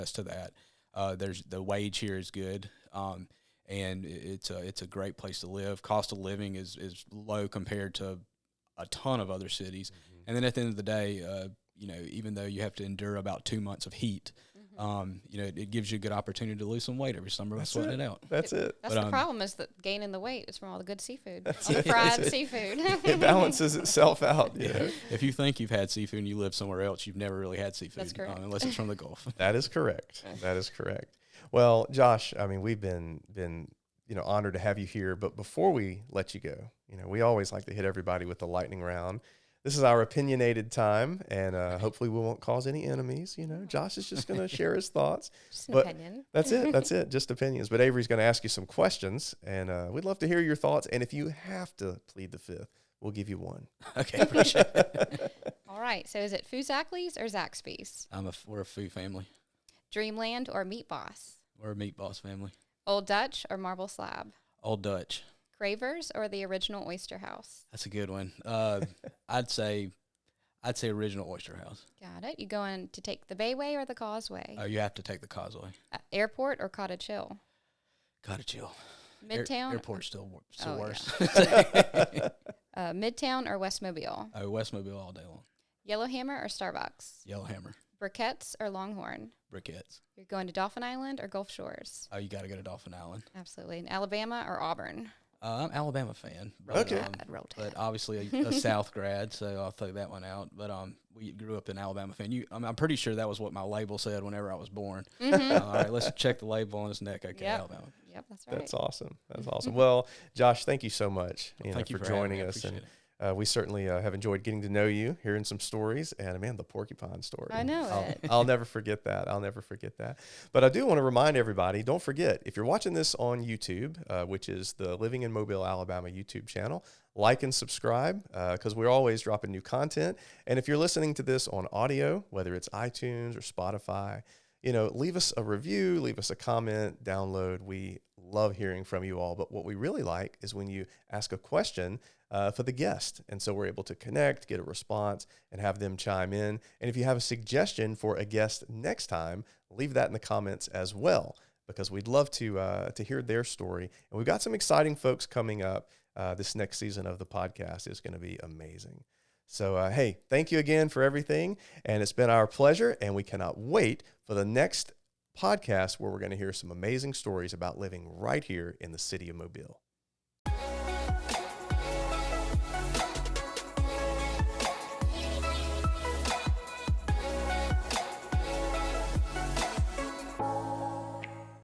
us to that. Uh, there's the wage here is good, um, and i- it's a it's a great place to live. Cost of living is is low compared to a ton of other cities. And then at the end of the day, uh, you know, even though you have to endure about two months of heat, Mm-hmm. um, you know, it, it gives you a good opportunity to lose some weight every summer by sweating it out. That's it. That's But, the um, problem is that gaining the weight is from all the good seafood, all the fried seafood. It balances itself out. You know? If you think you've had seafood and you live somewhere else, you've never really had seafood That's correct. um, unless it's from the Gulf. That is correct. That is correct. Well, Josh, I mean, we've been been you know honored to have you here. But before we let you go, you know, we always like to hit everybody with the lightning round. This is our opinionated time, and uh, hopefully, we won't cause any enemies. You know, Josh is just going to share his thoughts. Just an But- opinion. That's it. That's it. Just opinions. But Avery's going to ask you some questions, and uh, we'd love to hear your thoughts. And if you have to plead the fifth, we'll give you one. okay, I appreciate it. All right. So is it Fuzakli's or Zaxby's? I'm a f- we're a food family. Dreamland or Meat Boss? We're a meat boss family. Old Dutch or Marble Slab? Old Dutch. Cravers or the original Oyster House? That's a good one. Uh, I'd say, I'd say original Oyster House. Got it. You going to take the Bayway or the Causeway? Oh, you have to take the Causeway. Uh, airport or Cottage Hill? Gotta chill. Air- Midtown. airport's still wor- still Oh, yeah. worse. Uh, Midtown or Westmobile? oh, Westmobile all day long. Yellowhammer or Starbucks? Yellowhammer, Briquettes or Longhorn? briquettes. You're going to Dolphin Island or Gulf Shores? Oh, you gotta go to Dolphin Island. Absolutely. And Alabama or Auburn? Uh, I'm Alabama fan. But, Okay. um, I'd roll tide. but obviously a, a South grad, so I'll throw that one out. But um, we grew up in Alabama fan. You, I'm, I'm pretty sure that was what my label said whenever I was born. Uh, all right, let's check the label on his neck. Okay, Mm-hmm. Yep. Alabama. Yep, that's right. That's awesome. That's awesome. Well, Josh, thank you so much you know, thank you for for having me. joining I us. And appreciate uh, we certainly uh, have enjoyed getting to know you, hearing some stories, and man, the porcupine story. I know I'll, it. I'll never forget that. I'll never forget that. But I do want to remind everybody don't forget, if you're watching this on YouTube, uh, which is the Living in Mobile, Alabama YouTube channel, like and subscribe because we're always dropping new content. And if you're listening to this on audio, whether it's iTunes or Spotify, you know, leave us a review, leave us a comment, download. We love hearing from you all. But what we really like is when you ask a question uh, for the guest. And so we're able to connect, get a response, and have them chime in. And if you have a suggestion for a guest next time, leave that in the comments as well, because we'd love to, uh, to hear their story. And we've got some exciting folks coming up. Uh, this next season of the podcast is going to be amazing. So, uh, hey, thank you again for everything. And it's been our pleasure. And we cannot wait for the next podcast where we're going to hear some amazing stories about living right here in the city of Mobile.